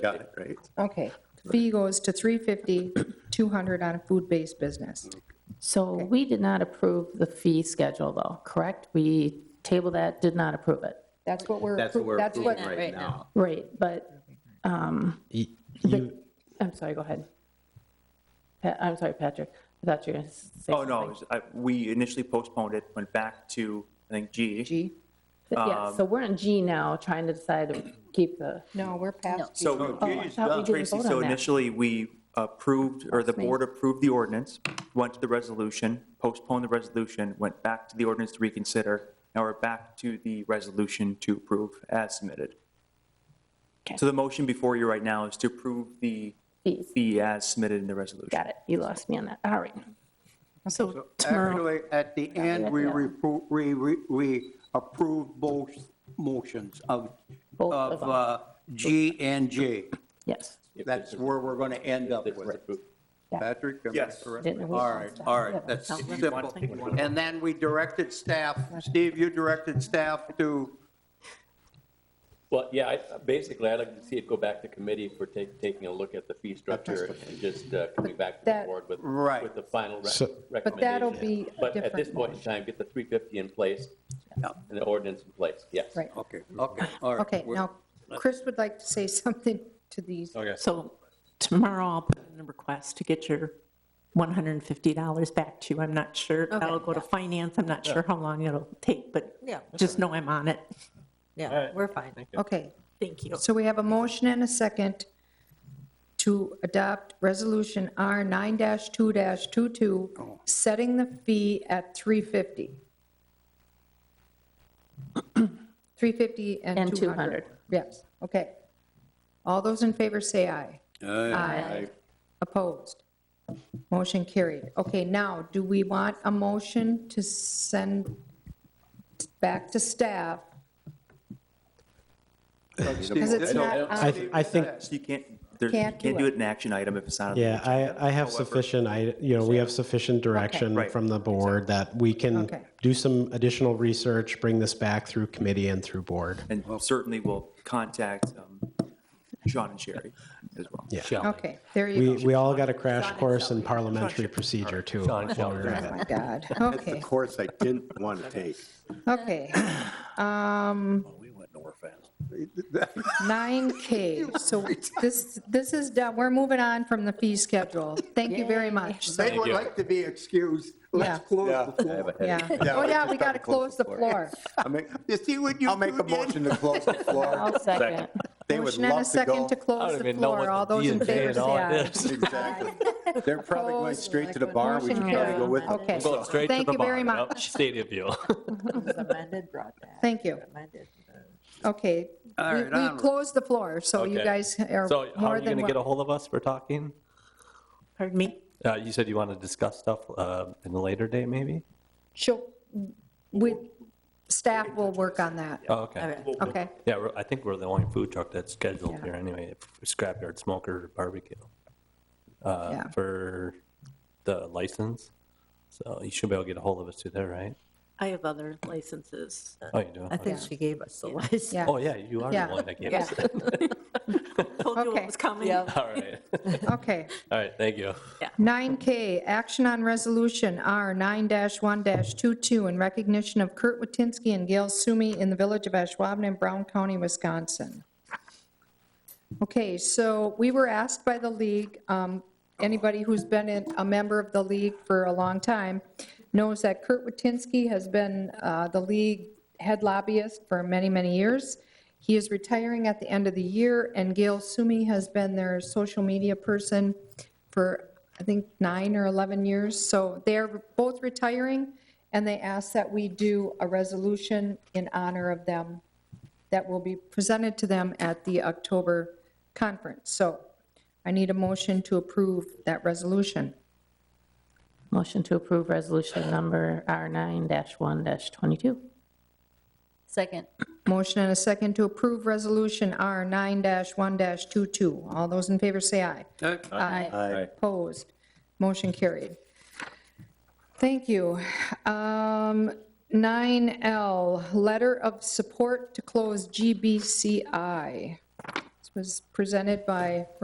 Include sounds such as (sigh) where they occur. Got it, right? Okay, fee goes to 350, 200 on a food-based business. So we did not approve the fee schedule, though, correct? We tabled that, did not approve it. That's what we're, That's what appro- we're that's what, approving right now. Right, but, um, Y- the- You, I'm sorry, go ahead. Pa- I'm sorry, Patrick, I thought you were going to say. Oh, no, it was- I- we initially postponed it, went back to, I think, G. G, Yeah, so we're in G now, trying to decide to keep the, no, we're past G. So oh, I thought we didn't Tracy, vote on so that. initially, we approved, or the Excuse me. board approved the ordinance, went to the resolution, postponed the resolution, went back to the ordinance to reconsider. Now we're back to the resolution to approve as submitted. Okay. So the motion before you right now is to approve the Fees. fee as submitted in the resolution. Got it, you lost me on that, all right. So uh, tomorrow, Actually, at the end, we, Yeah. repro- we, we- we approved both motions of, Both of of them. uh, G and J. yes, That's where we're going to end up with. Patrick? am I Yes. correct? Didn't we- All right, all right, that's simple. And then we directed staff, Steve, you directed staff to, Well, yeah, I- basically, I'd like to see it go back to committee for take- taking a look at the fee structure and just uh, coming back to the That- board with, Right. with the final rec- So- recommendation. But that'll be a But at this different point in time, get the 350 in place and the ordinance in place, yes. Right, okay, okay, all right. okay, We're- now, Chris would like to say (laughs) something to these. Oh, So tomorrow I'll put in a request to get your $150 back to you. I'm not sure, that'll go to finance, I'm not sure how long it'll take, but Yeah. just know I'm on it. Yeah, we're fine. Okay, Thank you. so we have a motion and a second to adopt Resolution R 9-2-22, setting the fee at (clears throat) 350. 350 and And 200. 200. Yes, okay. All those in favor say aye. Aye. Opposed? Motion carried. Okay, now, do we want a motion to send back to staff? Because it's not um, I, on, th- I think, So you can't, there- you Can't can't do do it. it in action item if it's not on the yeah, I, I have sufficient, I, you know, we have sufficient direction Right. from the board that we can Okay. do some additional research, bring this back through committee and through board. And certainly we'll contact um, Sean and Sherry as well. Yeah. okay, there We, you go. we all got a crash course in parliamentary procedure too. while we were Oh, at it. my God, That's the okay, course I didn't want to take. okay. Um, (laughs) 9K, so this, this is, done. we're moving on from the fee schedule. Thank you very (laughs) much. So, They would like to be excused. Let's Yeah. close the floor. Yeah, oh yeah, we got to close the floor. I mean, You see what you I'll make a two did? motion to close the floor. I'll (laughs) second. They would Motion and a love to second go. to close the floor. All those in favor say aye. Exactly. They're probably going Opposed? straight to the bar. We should probably Motion go carried. with them. Okay. Thank you very much. Stadium deal. Was amended, brought back, Thank you. amended. Okay. All We right, we um, onward. closed the floor, so you Okay. guys are So how are more you going than to get a welcome. hold of us for talking? Pardon me? Uh, You said you want to discuss stuff uh, in a later date, maybe? She'll, we, staff will work on that. Oh, okay. Okay, Yeah, we're- I think we're the only food truck that's scheduled here anyway, scrapyard smoker barbecue, uh, Yeah. for the license. So you should be able to get a hold of us through there, right? I have other licenses. Oh, you do? I think she gave us the list. yeah, Oh, yeah, you are Yeah. the one that gave us it. Told you Okay. what was coming. Yeah. All right. okay. All right, thank you. 9K, action on resolution R 9-1-22 in recognition of Kurt Watinsky and Gail Sumi in the village of Ashwaubenon in Brown County, Wisconsin. Okay, so we were asked by the league, um, anybody who's been in- a member of the league for a long time knows that Kurt Watinsky has been uh, the league head lobbyist for many, many years. He is retiring at the end of the year, and Gail Sumi has been their social media person for, I think, nine or 11 years. So they're both retiring, and they asked that we do a resolution in honor of them that will be presented to them at the October conference. So I need a motion to approve that resolution. Motion to approve resolution number R9-1-22. Second. Motion and a second to approve Resolution R 9-1-22. All those in favor say aye. Aye. Aye. Opposed. Motion carried. Thank you. Um, 9L, letter of support to close GBCI. It's was presented by